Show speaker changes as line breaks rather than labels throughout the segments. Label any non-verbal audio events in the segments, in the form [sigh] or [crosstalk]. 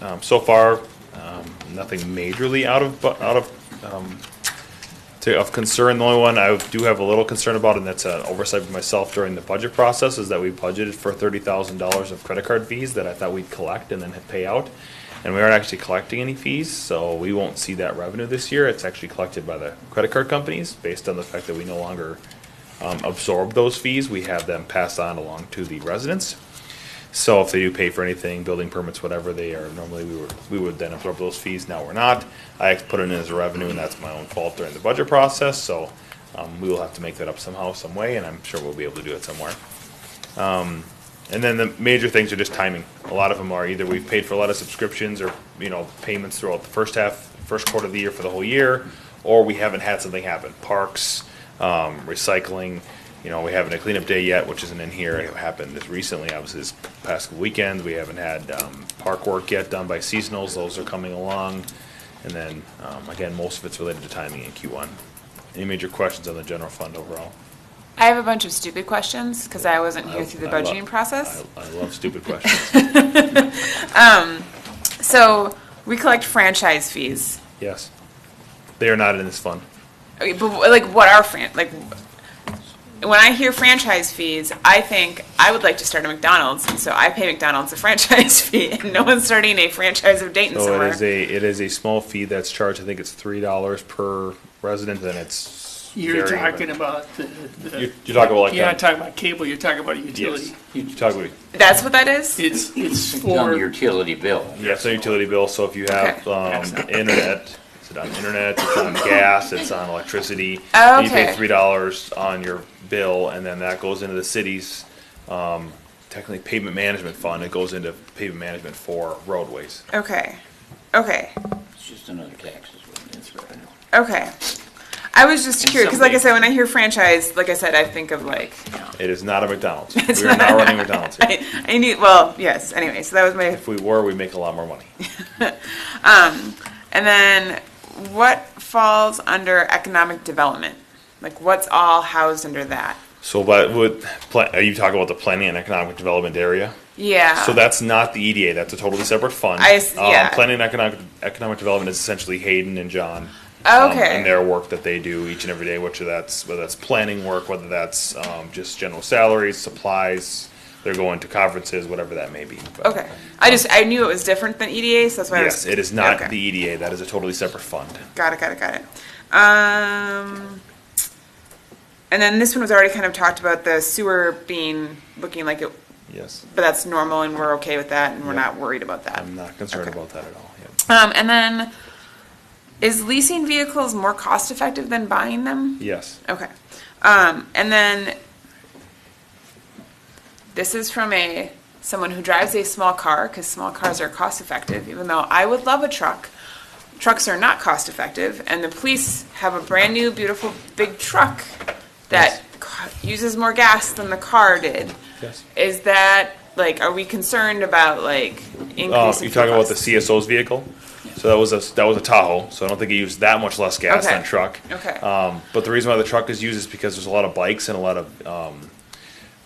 Um, So far, um, nothing majorly out of, bu- out of, um, to, of concern. The only one I do have a little concern about, and that's an oversight of myself during the budget process, is that we budgeted for thirty thousand dollars of credit card fees that I thought we'd collect and then pay out. And we aren't actually collecting any fees, so we won't see that revenue this year. It's actually collected by the credit card companies based on the fact that we no longer um, absorb those fees. We have them passed on along to the residents. So if they do pay for anything, building permits, whatever they are, normally we would, we would then absorb those fees, now we're not. I put it in as revenue and that's my own fault during the budget process, so, um, we will have to make that up somehow, some way, and I'm sure we'll be able to do it somewhere. Um, and then the major things are just timing. A lot of them are either we've paid for a lot of subscriptions or, you know, payments throughout the first half, first quarter of the year for the whole year, or we haven't had something happen. Parks, um, recycling. You know, we haven't had a cleanup day yet, which isn't in here. It happened this recently, obviously this past weekend. We haven't had, um, park work yet done by seasonals. Those are coming along. And then, um, again, most of it's related to timing in Q1. Any major questions on the general fund overall?
I have a bunch of stupid questions because I wasn't here through the
I love-
budgeting process.
I I love stupid
[laughs]
questions.
So we collect franchise fees.
Yes. They are not in this fund.
Okay, but wh- like, what are fran, like, when I hear franchise fees, I think I would like to start a McDonald's, and so I pay McDonald's a franchise [laughs] fee, and no one's starting a franchise of Dayton
So it is
somewhere.
a, it is a small fee that's charged. I think it's three dollars per resident and it's.
You're
very-
talking about the,
You're
the,
you're talking about like.
you're
that.
not talking about cable, you're talking about a utility.
Yes. You talk about,
That's what that is?
It's, it's
It's on the
for,
utility bill.
yeah, it's a utility bill, so if you have,
Okay.
um, internet, is it on internet, it's
[laughs]
on gas, it's on electricity.
Oh,
You pay
okay.
three dollars on your bill, and then that goes into the city's, um, technically pavement management fund, it goes into pavement management for roadways.
Okay, okay,
It's just another tax is what it is. revenue.
okay. I was just curious, because like I
somebody-
said, when I hear franchise, like I said, I think of like, [laughs]
It is not a McDonald's, we are not running McDonald's here.
I, I need, well, yes, anyway, so that was my
If we were, we'd make a lot more money.
And then what falls under economic development? Like what's all housed under that?
So, but would, pla- are you talking about the planning and economic development area?
Yeah.
So that's not the EDA. That's a totally separate fund.
Oh. I s-
Um,
yeah.
planning and economic economic development is essentially Hayden and John. um,
Okay.
and their work that they do each and every day, which that's whether that's planning work, whether that's um, just general salaries, supplies. They're going to conferences, whatever that may be. But
okay. I just I knew it was different than EDA, so that's why I was
Yes, it is not
Okay.
the EDA. That is a totally separate fund.
Got it, got it, got it. Um and then this one was already kind of talked about the sewer being looking like it
Yes,
but that's normal and we're okay with that and we're
Yeah.
not worried about that.
I'm not concerned
Okay.
about that at all. yeah.
Um and then is leasing vehicles more cost effective than buying them?
Yes,
Okay. Um, and then this is from a someone who drives a small car because small cars are cost effective. Even though I would love a truck, trucks are not cost effective, and the police have a brand new, beautiful, big truck that co- uses more gas than the car did.
yes.
Is that like, are we concerned about like increasing?
Uh, you're
fuel
talking about the
costs?
CSO's vehicle? So that was a, that was a Tahoe, so I don't think it used that much less gas
Okay.
than truck.
Okay.
Um, but the reason why the truck is used is because there's a lot of bikes and a lot of, um,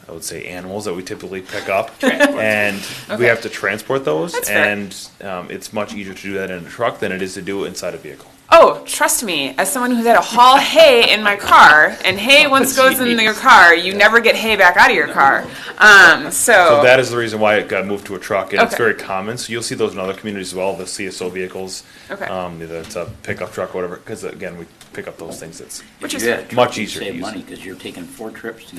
I would say animals that we typically pick
[laughs]
up. And we
Okay.
have to transport those.
That's fair.
And, um, it's much easier to do that in a truck than it is to do it inside a vehicle.
Oh, trust me, as someone who's had to haul hay in my car, and hay
Oh,
once goes in your car, you never get hay back out of your car. Um,
So
so,
that is the reason why it got moved to a truck, and it's
Okay.
very common. So you'll see those in other communities as well, the CSO vehicles.
Okay.
Um, either it's a pickup truck, or whatever, because again, we pick up those things. It's,
which
If
is,
you had
much
a truck, you'd
easier to
Save
use.
money because you're taking four trips to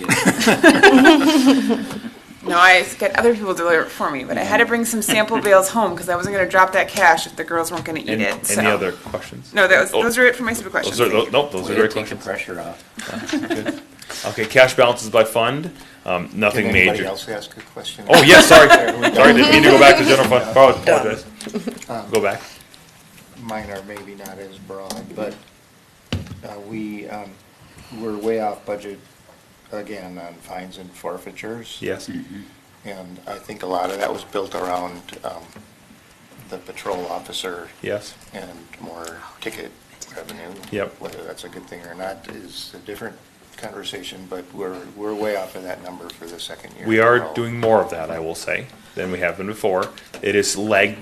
get.
no, I get other people to deliver it for me, but I had to bring
[laughs]
some sample bales home because I wasn't going to drop that cash if the girls weren't going to eat
any,
it.
any
so.
other questions?
No, that was,
Oh.
those are it for my stupid questions.
Those are, tho-
Thank you.
nope, those are great
Take the
questions.
pressure off.
Okay, cash balances by fund, um, nothing
Can anybody
major.
else ask a question?
Oh, yes, sorry,
we
sorry, didn't mean to go back to general
[laughs]
fund, Oh, apologize.
Uh.
Go back.
Mine are maybe not as broad, but uh, we, um, we're way off budget again on fines and forfeitures.
Yes,
And I think a lot of that was built around um, the patrol officer
yes,
and more ticket revenue.
Yep.
Whether that's a good thing or not is a different conversation, but we're, we're way off of that number for the second year.
we
in a
are
row.
doing more of that, I will say, than we have been before. It is lagged